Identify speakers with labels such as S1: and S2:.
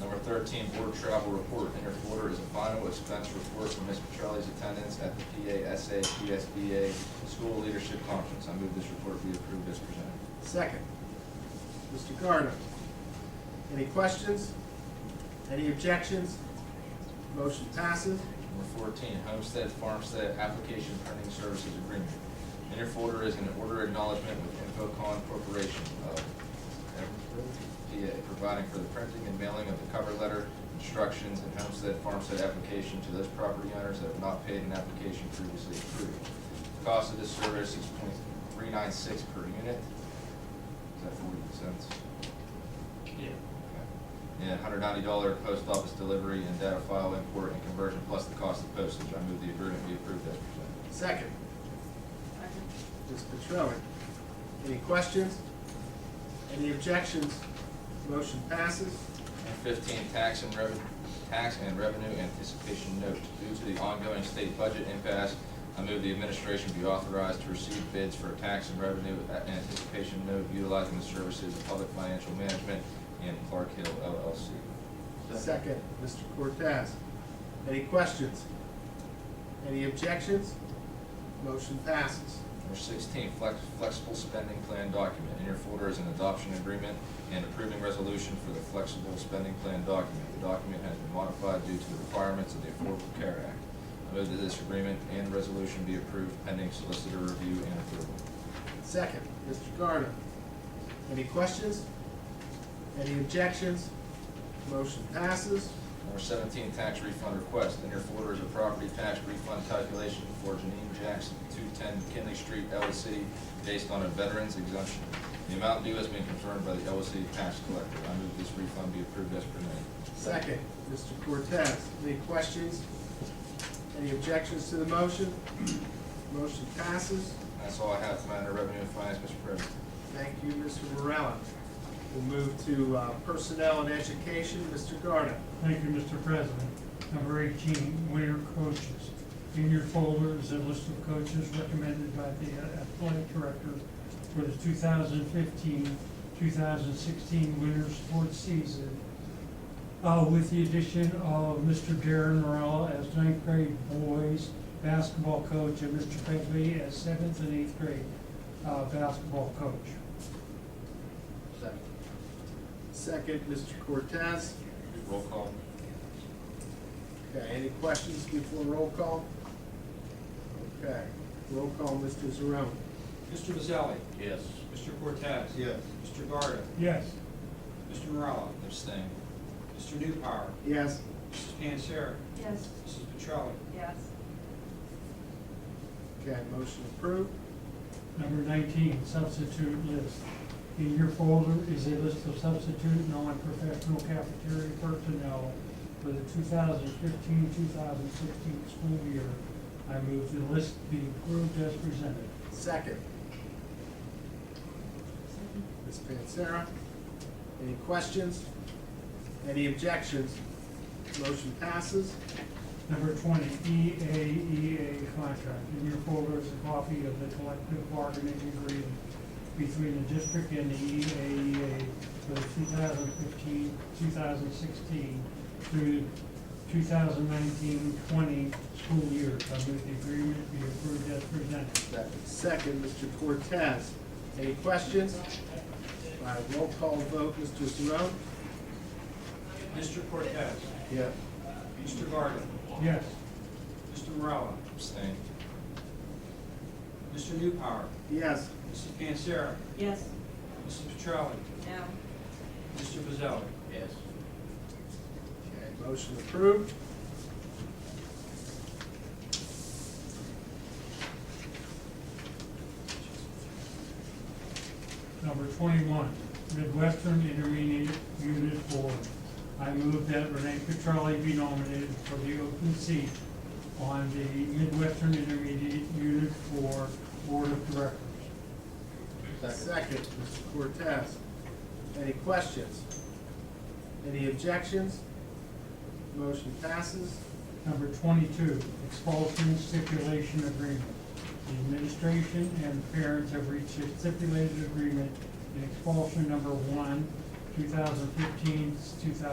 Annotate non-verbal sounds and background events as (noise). S1: Number thirteen, board travel report, interquarter is a final expense report for Ms. Petrelli's attendance at the PASA, PSBA School Leadership Conference. I move this report be approved as presented.
S2: Second. Mr. Gardner. Any questions? Any objections? Motion passes.
S1: Number fourteen, homestead, farmstead, application printing services agreement. Interfolder is an order acknowledgement with Infocon Corporation of PA, providing for the printing and mailing of the cover letter, instructions, and homestead, farmstead application to those property owners that have not paid an application previously approved. Cost of this service is point three nine six per unit. Is that forty cents?
S3: Yeah.
S1: And hundred ninety dollar post office delivery and data file import and conversion plus the cost of postage. I move the agreement be approved as presented.
S2: Second.
S4: Second.
S2: Ms. Petrelli. Any questions? Any objections? Motion passes.
S1: And fifteen, tax and revenue, tax and revenue anticipation note. Due to the ongoing state budget impasse, I move the administration be authorized to receive bids for a tax and revenue anticipation note utilizing the services of public financial management and Clark Hill LLC.
S2: Second, Mr. Cortez. Any questions? Any objections? Motion passes.
S1: Number sixteen, flex, flexible spending plan document. In your folder is an adoption agreement and approving resolution for the flexible spending plan document. The document has been modified due to the requirements of the Affordable Care Act. I move that this agreement and resolution be approved pending solicitor review and approval.
S2: Second, Mr. Gardner. Any questions? Any objections? Motion passes.
S1: Number seventeen, tax refund request. In your folder is a property tax refund calculation for Janine Jackson, two-ten McKinley Street, Ellis City, based on a veteran's exemption. The amount due has been confirmed by the Ellis City tax collector. I move this refund be approved as presented.
S2: Second, Mr. Cortez. Any questions? Any objections to the motion? (clears throat) Motion passes.
S1: That's all I have for matter of revenue and finance, Mr. President.
S2: Thank you, Mr. Morella. We'll move to uh, Personnel and Education, Mr. Gardner.
S3: Thank you, Mr. President. Number eighteen, winter coaches. In your folder is a list of coaches recommended by the athletic director for the 2015-2016 winter sports season, uh, with the addition of Mr. Darren Morrell as ninth grade boys basketball coach and Mr. Pegley as seventh and eighth grade, uh, basketball coach.
S2: Second, Mr. Cortez.
S1: Roll call.
S2: Okay, any questions before roll call? Okay, roll call, Mr. Zarone.
S5: Mr. Vazali.
S1: Yes.
S5: Mr. Cortez.
S6: yes,
S5: Mr. Garda.
S3: Yes,
S5: Mr. Morella.
S1: Abstain.
S5: Mr. Newpower.
S2: Yes.
S5: Mrs. Panzera.
S4: Yes.
S5: Mrs. Petrelli.
S4: Yes.
S2: Okay, motion approved.
S3: Number nineteen, substitute list. In your folder is a list of substitute non-professional cafeteria personnel for the 2015-2016 school year. I move the list be approved as presented.
S2: Second, Ms. Pansara. Any questions? Any objections? Motion passes.
S3: Number twenty, E EAEA contract. In your folder is a copy of the collective bargaining agreement between the district and the E EAEA for the 2015-2016 through 2019-20 school year. I move the agreement be approved as presented.
S2: Second, Mr. Cortez. Any questions? All right, roll call vote, Mr. Zarone?
S5: Mr. Cortez.
S2: Yeah.
S5: Mr. Garda.
S3: Yes,
S5: Mr. Morella.
S1: Abstain.
S5: Mr. Newpower.
S2: Yes.
S5: Mrs. Panzera.
S4: Yes.
S5: Mrs. Petrelli.
S4: No.
S5: Mr. Vazali.
S1: Yes.
S2: Okay, motion approved.
S3: number twenty-one, Midwestern Intermediate Unit Board. I move that Renee Petrelli be nominated for the open seat on the Midwestern Intermediate Unit Four Board of Directors.
S2: Second, Mr. Cortez. Any questions? Any objections? Motion passes.
S3: Number twenty-two, expulsion stipulation agreement. The administration and parents have reached a stipulated agreement in expulsion number one, 2015 2016